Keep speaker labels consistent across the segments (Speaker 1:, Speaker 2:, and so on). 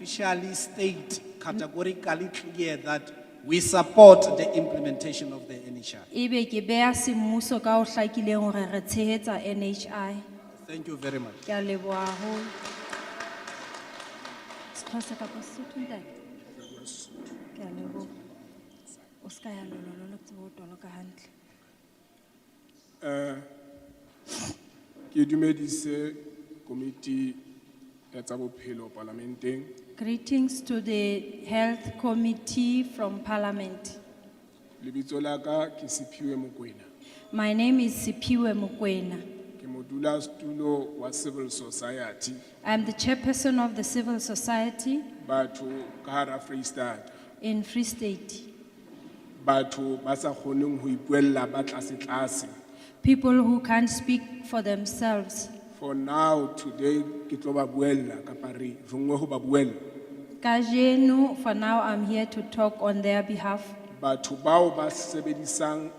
Speaker 1: officially state categorically clear that we support the implementation of the NHI.
Speaker 2: Ebe E ke beha semmuso ka o hlakileng hore re tshehetsa NHI.
Speaker 1: Thank you very much.
Speaker 2: Ke a leboha haholo. Sexhosa kapa Sesotho ntate? Ke a leboha. O ska ya lolololo ke tsebe ho toloka hantle.
Speaker 3: Ke dumedise komiti ya tsa bophelo parlamenteng.
Speaker 2: Greetings to the Health Committee from Parliament.
Speaker 3: Lebitso la ka ke Siphiwe Mokoena.
Speaker 2: My name is Sipiwe Mukwena.
Speaker 3: Ke modulasetulo wa Civil Society
Speaker 2: I'm the chairperson of the Civil Society
Speaker 3: batho ka hara Freistata.
Speaker 2: in Free State.
Speaker 3: Batho ba sa kgoneng ho ipuella ba tlase tlase.
Speaker 2: People who can't speak for themselves.
Speaker 3: For now today ke tlo ba buella kapa re rongwe ho ba buella.
Speaker 2: Kajeno, for now, I'm here to talk on their behalf.
Speaker 3: Batho bao ba sebedisang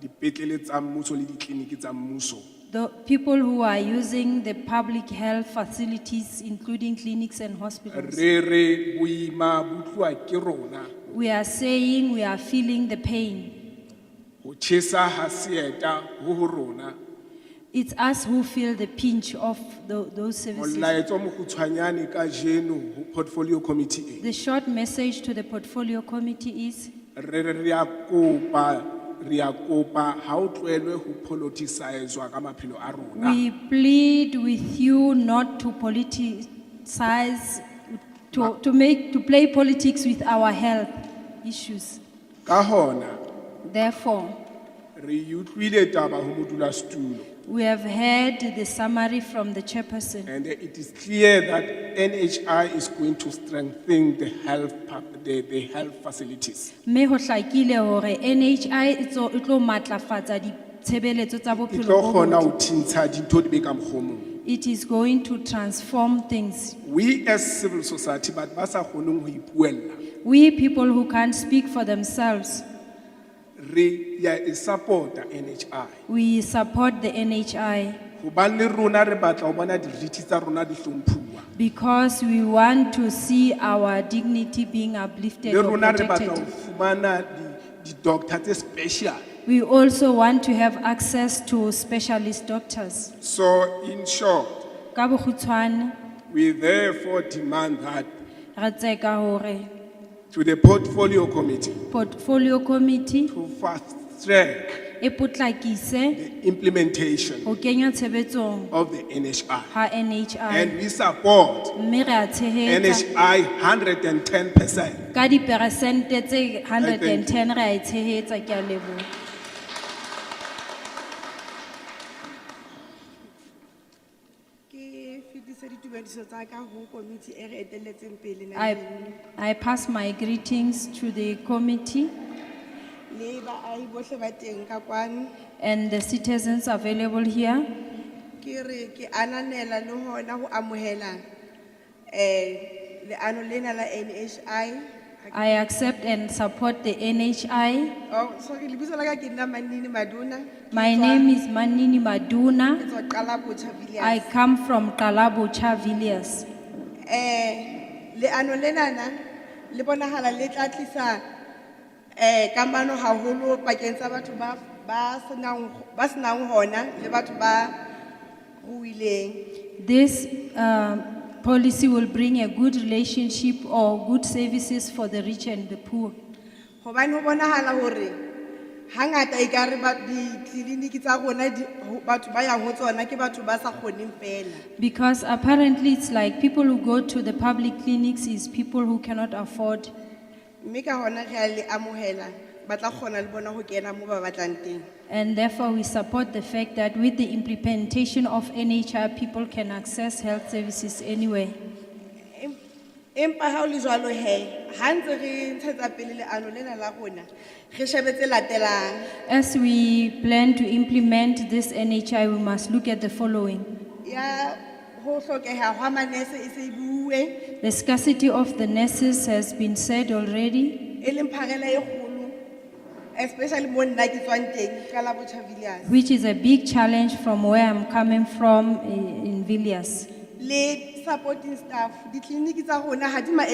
Speaker 3: dipetlele tsa mmuso le ditleliniki tsa mmuso.
Speaker 2: The people who are using the public health facilities, including clinics and hospitals.
Speaker 3: Re re boima bo tloha ke rona.
Speaker 2: We are saying we are feeling the pain.
Speaker 3: Ho tjhesa ha seeta ho ho rona.
Speaker 2: It's us who feel the pinch of tho- those services.
Speaker 3: Molaetsa o mokgutshwanyane ka jeno ho portfolio committee e.
Speaker 2: The short message to the portfolio committee is
Speaker 3: Re re re a kopa, re a kopa ha o tlohelwe ho politicize-wa ka maphelo a rona.
Speaker 2: we plead with you not to politicize, to, to make, to play politics with our health issues.
Speaker 3: Ka hona,
Speaker 2: Therefore,
Speaker 3: re utlwile taba ho modulasetulo
Speaker 2: we have heard the summary from the chairperson.
Speaker 3: and it is clear that NHI is going to strengthen the health, pa- the, the health facilities.
Speaker 2: Me ho hlakile hore NHI e tlo- e tlo matlafatsa ditshebeletso tsa
Speaker 3: E
Speaker 2: bophelo
Speaker 3: tlo
Speaker 2: bo
Speaker 3: kgona ho
Speaker 2: botle.
Speaker 3: tintsha dintho di be ka mokgwa o mong.
Speaker 2: It is going to transform things.
Speaker 3: We as civil society, but ba sa kgoneng ho ipuella,
Speaker 2: We people who can't speak for themselves,
Speaker 3: re ya e support-a NHI.
Speaker 2: we support the NHI
Speaker 3: Hobane le rona re batla ho bona dirithi tsa rona di hlomphuwa.
Speaker 2: because we want to see our dignity being uplifted
Speaker 3: Le
Speaker 2: or
Speaker 3: rona re batla ho
Speaker 2: protected.
Speaker 3: fumana di- di-doctor tse special.
Speaker 2: We also want to have access to specialist doctors.
Speaker 3: So in short,
Speaker 2: Ka bokgutshwane,
Speaker 3: we therefore demand that
Speaker 2: re tseka hore
Speaker 3: to the portfolio committee
Speaker 2: portfolio committee
Speaker 3: to fast track
Speaker 2: e potlakise
Speaker 3: the implementation
Speaker 2: ho kenya tshebetsong
Speaker 3: of the NHI.
Speaker 2: ha
Speaker 3: And
Speaker 2: NHI
Speaker 3: we support
Speaker 2: mme re a tshehetsa
Speaker 3: NHI hundred and ten percent.
Speaker 2: ka diperesente tse 110 re a e tshehetsa ke a leboha
Speaker 4: ke fetise ditumediso tsa ka ho komiti e re etelletseng pele
Speaker 2: I,
Speaker 4: naheng
Speaker 2: I pass my greetings to the committee
Speaker 4: le baahi bohle ba teng ka kwano
Speaker 2: and the citizens available here.
Speaker 4: ke re ke ananela le hona ho amohela eh leano lena la NHI
Speaker 2: I accept and support the NHI.
Speaker 4: oh sorry lebitso la ka ke nna Manini Maduna
Speaker 2: My name is Manini
Speaker 4: ke
Speaker 2: Maduna.
Speaker 4: tswa qala botjha
Speaker 2: I
Speaker 4: Villiers
Speaker 2: come from Kalabucha Villas.
Speaker 4: eh leano lena na le bonahala le tla tlisa eh kamano haholo pakeng tsa batho ba ba senang ba senang hona le batho ba ruileng
Speaker 2: This um, policy will bring a good relationship or good services for the rich and the poor.
Speaker 4: hobane ho bonahala hore hangata e ka re ba ditleliniki tsa rona di- ho- batho ba yang ho tsona ke batho ba sa kgoneng fela
Speaker 2: Because apparently it's like people who go to the public clinics is people who cannot afford.
Speaker 4: mme ka hona re a le amohela ba tla kgona le bona ho kena moo ba batlang teng
Speaker 2: And therefore we support the fact that with the implementation of NHI, people can access health services anywhere.
Speaker 4: Em- empa ha o le jwalo hee ha ntse re ntshetsa pele leano lena la rona re shebe tse latelang
Speaker 2: As we plan to implement this NHI, we must look at the following.
Speaker 4: ya ho hlokeha hwa manese e se e bue
Speaker 2: The scarcity of the nurses has been said already.
Speaker 4: e leng pharela e kgolo especially mo nna ke tswang teng ka la botjhavillas
Speaker 2: which is a big challenge from where I'm coming from i- eh, in Villiers.
Speaker 4: le supporting staff. Ditleliniki tsa rona ha di ma